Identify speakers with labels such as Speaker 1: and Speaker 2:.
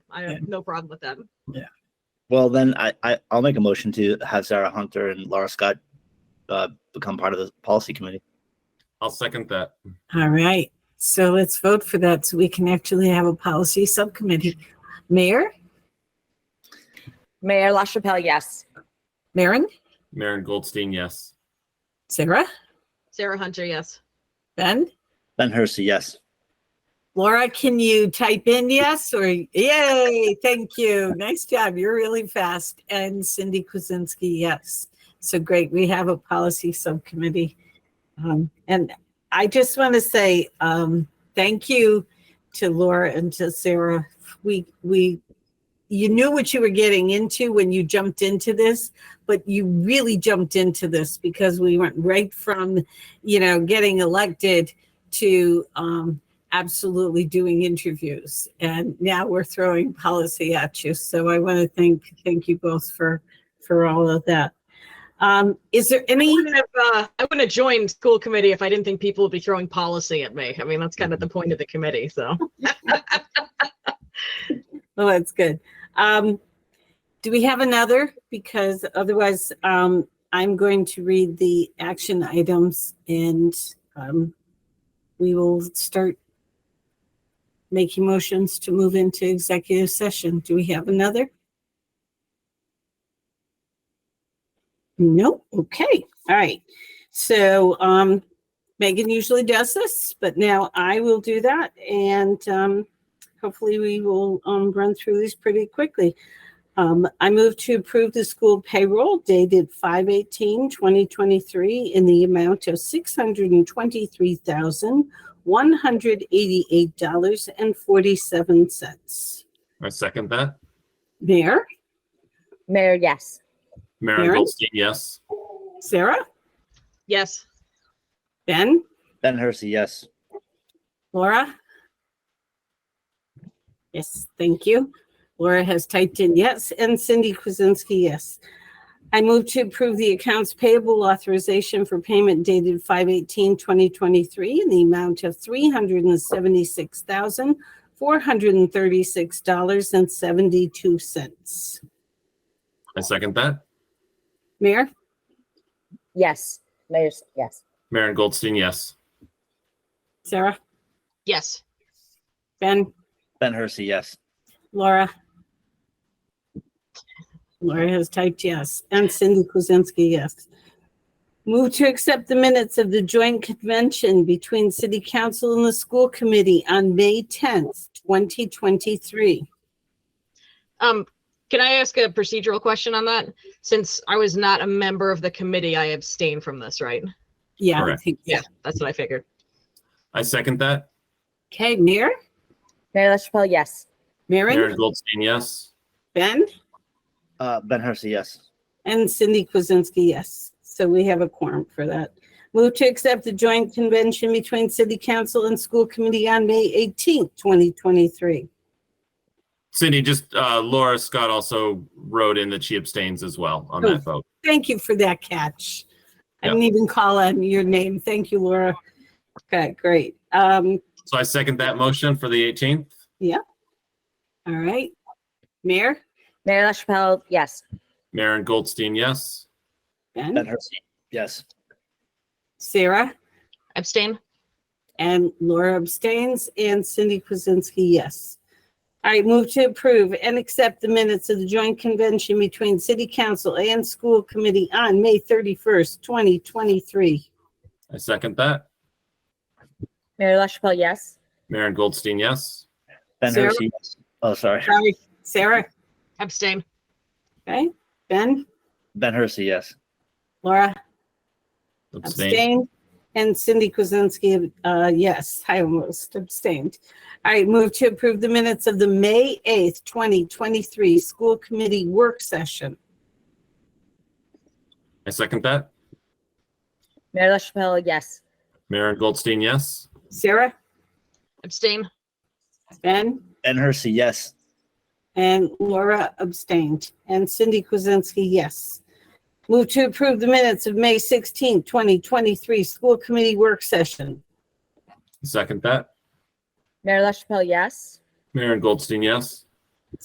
Speaker 1: I have no problem with them.
Speaker 2: Well, then I, I I'll make a motion to have Sarah Hunter and Laura Scott uh, become part of the policy committee.
Speaker 3: I'll second that.
Speaker 4: All right, so let's vote for that so we can actually have a policy subcommittee. Mayor,
Speaker 5: Mayor LaChapelle, yes.
Speaker 4: Maren,
Speaker 3: Maren Goldstein, yes.
Speaker 4: Sarah,
Speaker 1: Sarah Hunter, yes.
Speaker 4: Ben,
Speaker 2: Ben Hersey, yes.
Speaker 4: Laura, can you type in yes or yay? Thank you. Nice job. You're really fast. And Cindy Kuzinski, yes. So great. We have a policy subcommittee. Um, and I just want to say um, thank you to Laura and to Sarah. We we you knew what you were getting into when you jumped into this, but you really jumped into this because we went right from, you know, getting elected to um, absolutely doing interviews and now we're throwing policy at you so i want to thank thank you both for for all of that um is there any
Speaker 1: wouldn't have, uh, I wouldn't have joined school committee if I didn't think people would be throwing policy at me. I mean, that's kind of the point of the committee, so.
Speaker 4: well that's good um do we have another because otherwise um i'm going to read the action items and um we will start making motions to move into executive session do we have another No, okay, all right. So um Megan usually does this, but now I will do that and um hopefully we will um run through these pretty quickly. Um, I move to approve the school payroll dated 2023 in the amount of six hundred and twenty-three thousand one hundred eighty-eight dollars and forty-seven cents.
Speaker 3: I second that.
Speaker 4: Mayor,
Speaker 5: Mayor, yes.
Speaker 3: Maren
Speaker 4: Maren?
Speaker 3: Goldstein, yes.
Speaker 4: Sarah,
Speaker 1: Yes,
Speaker 4: Ben,
Speaker 2: Ben Hersey, yes.
Speaker 4: Laura? Yes, thank you. Laura has typed in yes, and Cindy Kuzinski, yes. I move to approve the accounts payable authorization for payment dated 5/18/2023 in the amount of $376,436.72.
Speaker 3: I second that.
Speaker 4: Mayor?
Speaker 5: Yes. Mayor, yes.
Speaker 3: Maren Goldstein, yes.
Speaker 4: Sarah?
Speaker 1: yes,
Speaker 4: Ben?
Speaker 2: Ben Hersey, yes.
Speaker 4: Laura? Laura has typed yes, and Cindy Kuzinski, yes. Move to accept the minutes of the joint convention between City Council and the School Committee on May 10th, 2023.
Speaker 1: um, can I ask a procedural question on that? Since I was not a member of the committee, I abstain from this, right?
Speaker 4: Yeah, I
Speaker 3: Correct.
Speaker 4: think, yeah.
Speaker 1: That's what I figured.
Speaker 3: I second that.
Speaker 4: Okay, Mayor,
Speaker 5: Mayor LaChapelle, yes.
Speaker 4: Maren,
Speaker 3: Maren Goldstein, yes.
Speaker 4: Ben,
Speaker 2: Uh, ben Hersey, yes.
Speaker 4: and Cindy Kuzinski, yes. So we have a quorum for that. Move to accept the joint convention between City Council and School Committee on May 18th, 2023.
Speaker 3: Cindy, just uh, Laura Scott also wrote in that she abstains as well on that vote.
Speaker 4: Thank you for that catch. I
Speaker 3: Yeah.
Speaker 4: didn't even call on your name. Thank you, Laura. Okay, great. Um,
Speaker 3: So I second that motion for the 18th.
Speaker 4: all right. Mayor,
Speaker 5: Mayor LaChapelle, yes.
Speaker 3: Maren Goldstein, yes.
Speaker 2: Ben
Speaker 4: Ben,
Speaker 2: Hersey, yes.
Speaker 4: Sarah,
Speaker 1: Abstain?
Speaker 4: and Laura abstains, and Cindy Kuzensky, yes. All right, move to approve and accept the minutes of the joint convention between City Council and School Committee on May 31st, 2023.
Speaker 3: I second that.
Speaker 5: Mayor LaChapelle, yes.
Speaker 3: Maren Goldstein, yes.
Speaker 2: Ben
Speaker 4: Sarah?
Speaker 2: Hersey, yes. Oh, sorry.
Speaker 4: Sorry, Sarah,
Speaker 1: Abstain.
Speaker 4: okay? Ben,
Speaker 2: Ben Hersey, yes.
Speaker 4: Laura?
Speaker 3: Abstain.
Speaker 4: Abstained. And Cindy Kuzensky, uh, yes, I almost abstained. All right, move to approve the minutes of the May 8th, 2023 School Committee Work Session.
Speaker 3: I second that.
Speaker 5: Mayor LaChapelle, yes.
Speaker 3: Maren Goldstein, yes.
Speaker 4: Sarah,
Speaker 1: Abstain?
Speaker 4: Ben,
Speaker 2: Ben Hersey, yes.
Speaker 4: and Laura abstained, and Cindy Kuzensky, yes. Move to approve the minutes of May 16th, 2023 School Committee Work Session.
Speaker 3: I second that.
Speaker 5: Mayor LaChapelle, yes.
Speaker 3: Maren Goldstein, yes.